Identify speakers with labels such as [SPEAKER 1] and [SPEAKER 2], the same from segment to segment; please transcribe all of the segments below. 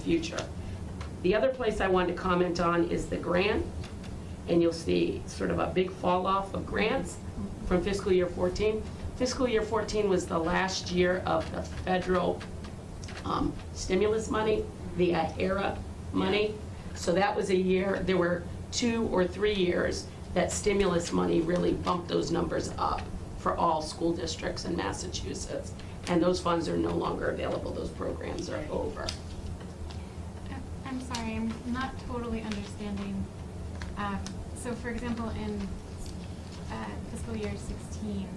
[SPEAKER 1] future. The other place I wanted to comment on is the grant, and you'll see sort of a big fall off of grants from fiscal year 14. Fiscal year 14 was the last year of the federal um, stimulus money, the AHERA money. So that was a year, there were two or three years that stimulus money really bumped those numbers up for all school districts in Massachusetts. And those funds are no longer available, those programs are over.
[SPEAKER 2] I'm sorry, I'm not totally understanding. Um, So for example, in uh, fiscal year 16,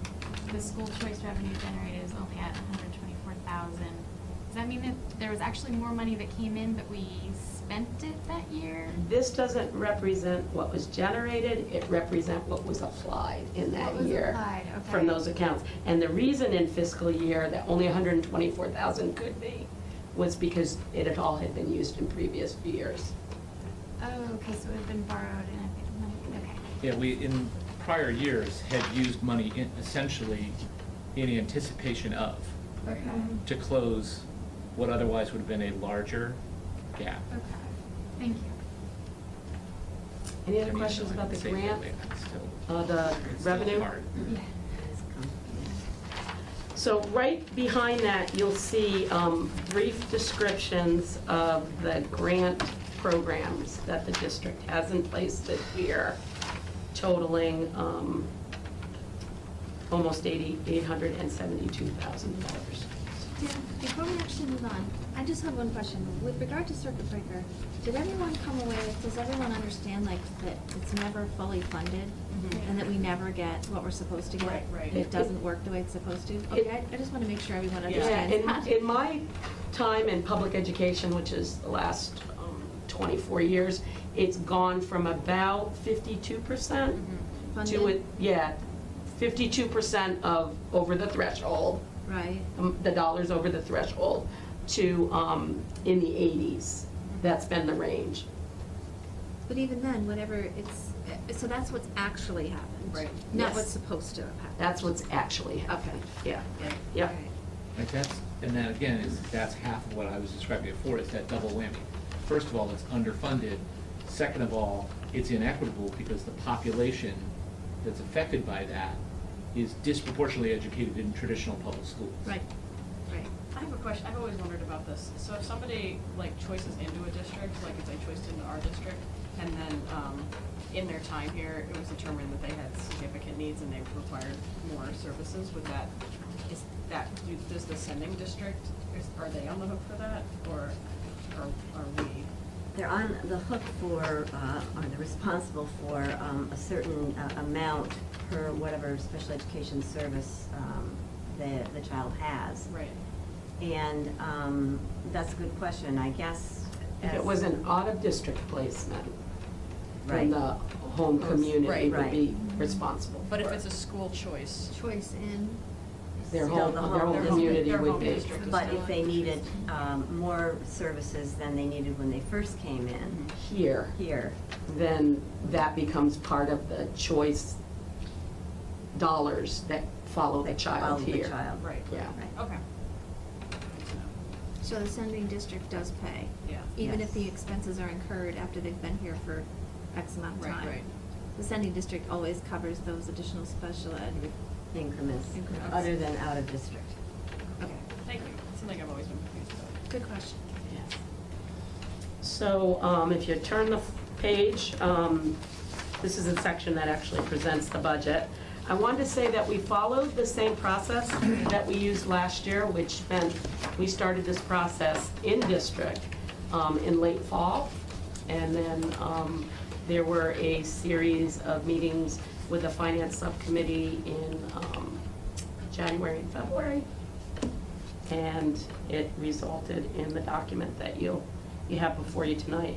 [SPEAKER 2] the school choice revenue generated is only at 124,000. Does that mean that there was actually more money that came in, but we spent it that year?
[SPEAKER 1] This doesn't represent what was generated, it represent what was applied in that
[SPEAKER 2] What was
[SPEAKER 1] year.
[SPEAKER 2] applied, okay.
[SPEAKER 1] From those accounts. And the reason in fiscal year that only 124,000 could be was because it had all had been used in previous years.
[SPEAKER 2] Oh, okay, so it had been borrowed and I think money, okay.
[SPEAKER 3] Yeah, we, in prior years, had used money in- essentially in anticipation of,
[SPEAKER 2] Okay.
[SPEAKER 3] to close what otherwise would have been a larger gap.
[SPEAKER 2] Okay, thank you.
[SPEAKER 1] Any
[SPEAKER 3] I
[SPEAKER 1] other
[SPEAKER 3] mean,
[SPEAKER 1] questions
[SPEAKER 3] so I
[SPEAKER 1] about the
[SPEAKER 3] can say
[SPEAKER 1] grant,
[SPEAKER 3] that it's still-
[SPEAKER 1] uh, the
[SPEAKER 3] it's still
[SPEAKER 1] revenue?
[SPEAKER 3] hard.
[SPEAKER 1] So right behind that, you'll see um, brief descriptions of the grant programs that the district has in place this year totaling um, almost eighty eight hundred and $872,000.
[SPEAKER 4] Dan, before we actually move on, I just have one question. With regard to circuit breaker, did everyone come away, does everyone understand like that it's never fully funded?
[SPEAKER 1] Mm-hmm.
[SPEAKER 4] And that we never get what we're supposed to get?
[SPEAKER 5] Right, right.
[SPEAKER 4] And it doesn't work the way it's supposed to? Okay, I- I just want to make sure everyone understands.
[SPEAKER 1] Yeah, in, in my time in public education, which is the last um, 24 years, it's gone from about 52%
[SPEAKER 4] Mm-hmm.
[SPEAKER 1] to,
[SPEAKER 4] Funded,
[SPEAKER 1] it- yeah, 52% of, over the threshold,
[SPEAKER 4] right?
[SPEAKER 1] um, the dollars over the threshold, to um, in the 80s. That's been the range.
[SPEAKER 4] But even then, whatever it's, uh, so that's what's actually happened?
[SPEAKER 5] Right.
[SPEAKER 4] Not
[SPEAKER 1] Yes.
[SPEAKER 4] what's supposed to have happened?
[SPEAKER 1] That's what's actually happened. Yeah,
[SPEAKER 5] Yeah.
[SPEAKER 1] yeah.
[SPEAKER 4] Right.
[SPEAKER 3] Like that's, and that again is, that's half of what I was describing before, is that double whammy. First of all, it's underfunded. Second of all, it's inequitable because the population that's affected by that is disproportionately educated in traditional public schools.
[SPEAKER 4] Right, right.
[SPEAKER 5] I have a question, I've always wondered about this. So if somebody like choices into a district, like if they choiced into our district, and then, um, in their time here, it was determined that they had significant needs and they required more services, would that, is that, do- does the sending district, is, are they on the hook for that, or, or are we?
[SPEAKER 6] They're on the hook for, uh, or they're responsible for um, a certain uh, amount per whatever special education service um, the, the child has.
[SPEAKER 5] Right.
[SPEAKER 6] And um, that's a good question, I guess.
[SPEAKER 1] If it
[SPEAKER 6] as-
[SPEAKER 1] was an out-of-district placement, then
[SPEAKER 6] Right.
[SPEAKER 1] the home community
[SPEAKER 5] Right,
[SPEAKER 1] would
[SPEAKER 6] right.
[SPEAKER 1] be responsible for
[SPEAKER 5] But if
[SPEAKER 1] it.
[SPEAKER 5] it's a school choice,
[SPEAKER 4] Choice in,
[SPEAKER 1] Their
[SPEAKER 6] Still
[SPEAKER 1] whole,
[SPEAKER 6] the
[SPEAKER 1] their
[SPEAKER 6] whole
[SPEAKER 1] whole
[SPEAKER 6] district.
[SPEAKER 1] community
[SPEAKER 5] Their
[SPEAKER 1] would
[SPEAKER 5] whole
[SPEAKER 1] be.
[SPEAKER 5] district.
[SPEAKER 6] But if they needed um, more services than they needed when they first came in
[SPEAKER 1] Here,
[SPEAKER 6] here,
[SPEAKER 1] then that becomes part of the choice dollars that follow the
[SPEAKER 6] they followed
[SPEAKER 1] child
[SPEAKER 6] the
[SPEAKER 1] here.
[SPEAKER 6] child.
[SPEAKER 5] right,
[SPEAKER 1] Yeah.
[SPEAKER 6] Right.
[SPEAKER 5] okay.
[SPEAKER 4] so the sending district does pay?
[SPEAKER 5] Yeah.
[SPEAKER 4] Even if
[SPEAKER 6] Yes.
[SPEAKER 4] the expenses are incurred after they've been here for X amount of
[SPEAKER 5] Right,
[SPEAKER 4] time?
[SPEAKER 5] right.
[SPEAKER 4] The sending district always covers those additional special ed.
[SPEAKER 6] Increments,
[SPEAKER 4] Increments.
[SPEAKER 6] other than out of district.
[SPEAKER 4] Okay,
[SPEAKER 5] Thank you, something I've always been confused about.
[SPEAKER 4] good question.
[SPEAKER 1] So um, if you turn the f- page, um, this is the section that actually presents the budget. I wanted to say that we followed the same process that we used last year, which meant we started this process in district um, in late fall. And then um, there were a series of meetings with the finance subcommittee in um, January and February and it resulted in the document that you, you have before you tonight.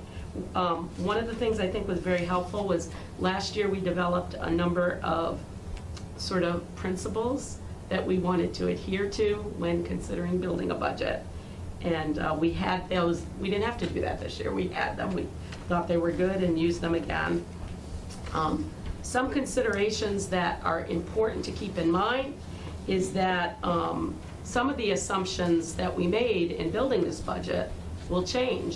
[SPEAKER 1] Um, One of the things I think was very helpful was, last year, we developed a number of sort of principles that we wanted to adhere to when considering building a budget. And uh, we had those, we didn't have to do that this year, we had them, we thought they were good and used them again. Um, Some considerations that are important to keep in mind is that um, some of the assumptions that we made in building this budget will change